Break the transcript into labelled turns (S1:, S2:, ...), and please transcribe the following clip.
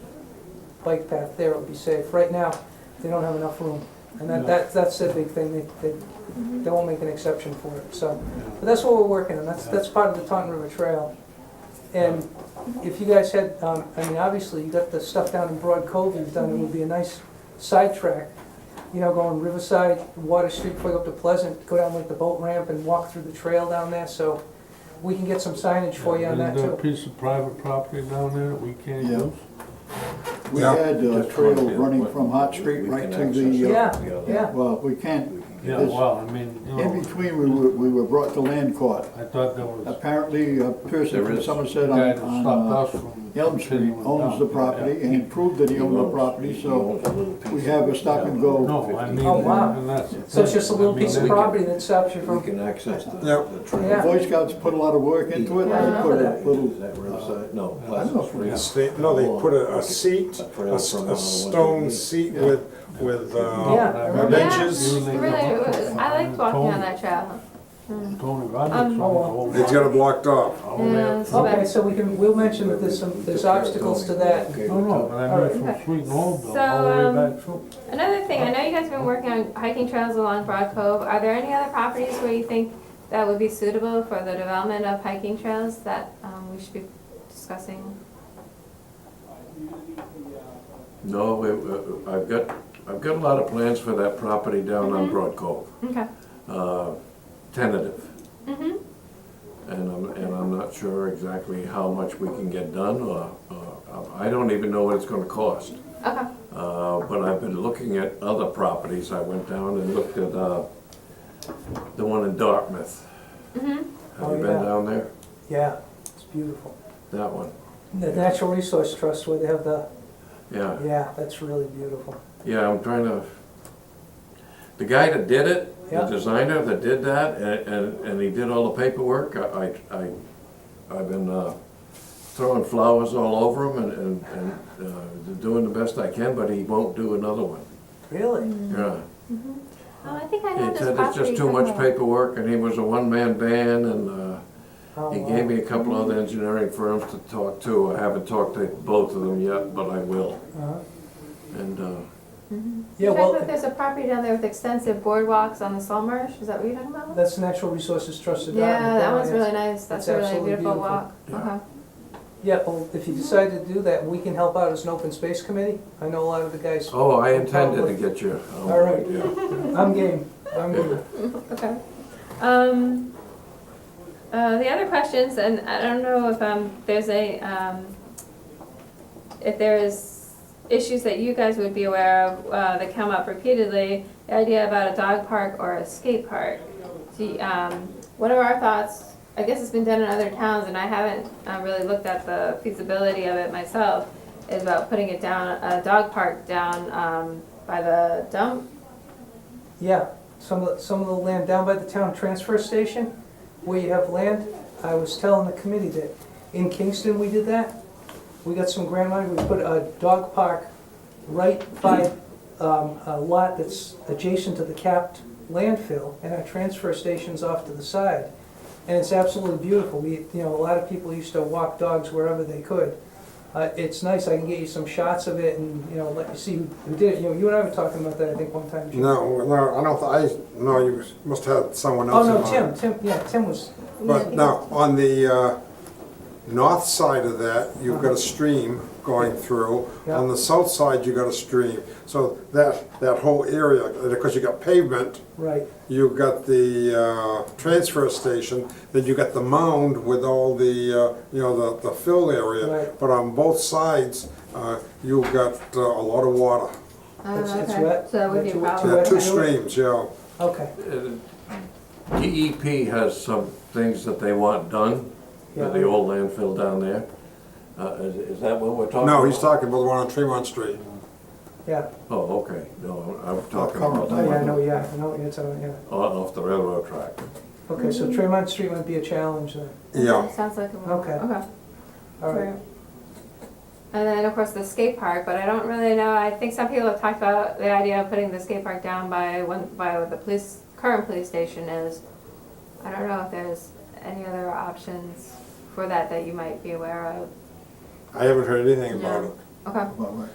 S1: bike path there would be safe. Right now, they don't have enough room. And
S2: No.
S1: that, that, that's the big thing, they, they, they won't make an exception for it, so. But that's what we're working on, that's,
S2: Yeah.
S1: that's part of the Taunton River Trail. And if you guys had, um, I mean, obviously, you got the stuff down in Broad Cove you've done, it would be a nice sidetrack. You know, going Riverside, Water Street, plug up to Pleasant, go down like the boat ramp and walk through the trail down there, so we can get some signage for you on that
S2: Isn't there
S1: too.
S2: a uh, piece of private property down there that we can't
S3: Yeah.
S2: use?
S3: We
S4: Yeah.
S3: had a
S4: Just wanna
S3: trail
S4: be-
S3: running from Hot Street
S4: we
S3: right
S4: can
S3: to
S4: access
S3: the, uh,
S1: Yeah.
S4: it.
S1: Yeah.
S3: well, we can't,
S4: We can get-
S2: Yeah,
S3: Yes.
S2: well, I mean, you
S3: in
S2: know,
S3: between, we were, we were brought to land court.
S2: I thought there was a
S3: Apparently, a person
S4: There
S3: from
S4: is.
S3: Somerset on,
S2: guy that
S3: on uh,
S2: stopped us from.
S3: Elm Street
S2: continuing
S3: owns the
S2: down.
S3: property and proved that he owned the property,
S4: He
S3: so
S4: owns a little piece
S3: we have a stop and go.
S2: No, I mean,
S1: Oh, wow.
S2: and that's. the
S1: So it's
S2: thing.
S1: just a little
S2: I mean,
S1: piece of
S2: they-
S1: property that stops you
S4: We
S1: from,
S4: can access the,
S5: Yep.
S4: the
S3: the
S1: Yeah.
S4: trail.
S3: Boy Scouts put a lot of work into it,
S1: Yeah.
S3: they put a
S4: Is
S3: little,
S4: that Riverside? No,
S3: I don't know
S4: Pleasant
S3: if we
S4: Street.
S5: It's they- no, they put a, a seat,
S4: A
S5: a,
S4: trail
S5: s-
S4: from,
S5: a
S4: uh,
S5: stone
S4: what they-
S5: seat with, with,
S1: Yeah.
S5: uh,
S2: I
S1: Yeah,
S2: remember
S5: benches.
S2: you and they
S6: Really, it
S2: walked
S6: was- I liked walking on that trail.
S2: Tony- Tony Robbins.
S6: Um,
S2: on the whole
S5: it's got it blocked off.
S2: lot.
S6: Yeah, it's
S1: okay,
S6: better.
S1: so we can, we'll mention that there's some, there's obstacles to that.
S4: Okay,
S2: No, no, but I mean, from
S6: Okay.
S2: Sweet and Old Bill,
S6: So,
S2: all the
S6: um,
S2: way back through.
S6: Another thing, I know you guys have been working on hiking trails along Broad Cove. Are there any other properties where you think that would be suitable for the development of hiking trails that um, we should be discussing?
S4: No, we- we- I've got, I've got a lot of plans for that property down on
S6: Mhm.
S4: Broad Cove,
S6: Okay.
S4: uh, tentative.
S6: Mm-hmm.
S4: And I'm, and I'm not sure exactly how much we can get done, or, or, I don't even know what it's gonna cost.
S6: Okay.
S4: Uh, But I've been looking at other properties. I went down and looked at uh, the one in Dartmouth.
S6: Mm-hmm.
S4: Have
S1: Oh,
S4: you
S1: yeah.
S4: been down there?
S1: Yeah, it's beautiful.
S4: That one,
S1: The Natural Resource Trust where they have the,
S4: yeah.
S1: yeah, that's really beautiful.
S4: Yeah, I'm trying to, the guy that did it, the
S1: Yeah.
S4: designer that did that, and, and- and he did all the paperwork, I, I, I- I've been uh, throwing flowers all over him and, and- and uh, doing the best I can, but he won't do another one,
S1: Really?
S6: Mm.
S4: yeah.
S6: Oh, I think I know
S4: He
S6: this
S4: said
S6: property.
S4: it's just too much
S6: somewhere.
S4: paperwork, and he was a one-man band, and uh,
S1: Oh,
S4: He
S1: wow.
S4: gave me a couple other engineering firms to talk to. I haven't talked to both of them yet, but I will.
S1: Uh-huh.
S4: And, uh,
S1: Yeah,
S6: You guys
S1: well,
S6: know if there's a property down there with extensive boardwalks on the Saltmarsh? Is that what you're talking about?
S1: that's Natural Resources Trust of
S6: Yeah,
S1: Dartmouth.
S6: that one's really nice.
S1: it's
S6: That's a really
S1: absolutely
S6: beautiful
S1: beautiful.
S6: walk.
S4: Yeah.
S6: Okay.
S1: Yeah, well, if you decide to do that, we can help out as an open space committee. I know a lot of the guys,
S4: oh, I intended to get you. Oh,
S1: All right.
S4: Yeah.
S1: I'm game, I'm game.
S6: Okay. Um, uh, the other questions, and I don't know if, um, there's a, um, if there's issues that you guys would be aware of, uh, that come up repeatedly, the idea about a dog park or a skate park. Do, you- um, what are our thoughts? I guess it's been done in other towns, and I haven't, uh, really looked at the feasibility of it myself, is about putting it down, a dog park down, um, by the dump.
S1: Yeah, some of, some of the land down by the town transfer station, where you have land, I was telling the committee that in Kingston, we did that. We got some grant money, we put a dog park right by um, a lot that's adjacent to the capped landfill, and our transfer station's off to the side. And it's absolutely beautiful, we, you know, a lot of people used to walk dogs wherever they could. Uh, It's nice, I can get you some shots of it and, you know, let you see who who did it, you know, you and I were talking about that, I think, one time, Jim.
S5: No, no, I don't, th- I, no, you must have someone
S1: Oh,
S5: else in mind.
S1: no, Tim, Tim, yeah, Tim was,
S5: But now, on the uh, north side of that, you've got a
S1: Uh-huh.
S5: stream going through. On the south side, you've got a stream. So that, that whole area, because you've got pavement,
S1: right,
S5: you've got the uh, transfer station, then you got the mound with all the, uh, you know, the the fill area.
S1: Right.
S5: But on both sides, uh, you've got uh, a lot of water.
S6: Oh,
S1: It's- it's
S6: okay.
S1: wet.
S6: So that would be a
S1: Two-
S6: problem.
S5: Yeah,
S1: wet
S5: two
S1: to do it?
S5: streams, yeah.
S1: okay,
S4: Uh, DEP has some things that they want done,
S1: Yeah.
S4: with the old landfill down there. Uh, is, is that what we're talking about?
S5: No, he's talking about the one on Tremont Street.
S1: yeah.
S4: Oh, okay, no, I'm I'm talking
S3: Current.
S4: about
S1: Oh,
S4: the
S1: yeah, I
S4: one
S1: know, yeah, I know what you're talking, yeah.
S4: o- off the railroad track.
S1: Okay, so Tremont Street might be a challenge then,
S5: Yeah.
S6: Sounds like a.
S1: Okay.
S6: Okay.
S1: all right.
S6: And then, of course, the skate park, but I don't really know, I think some people have talked about the idea of putting the skate park down by one, by what the police, current police station is. I don't know if there's any other options for that that you might be aware of.
S5: I haven't heard anything about
S6: Yeah.
S5: it.
S6: Okay,
S3: well,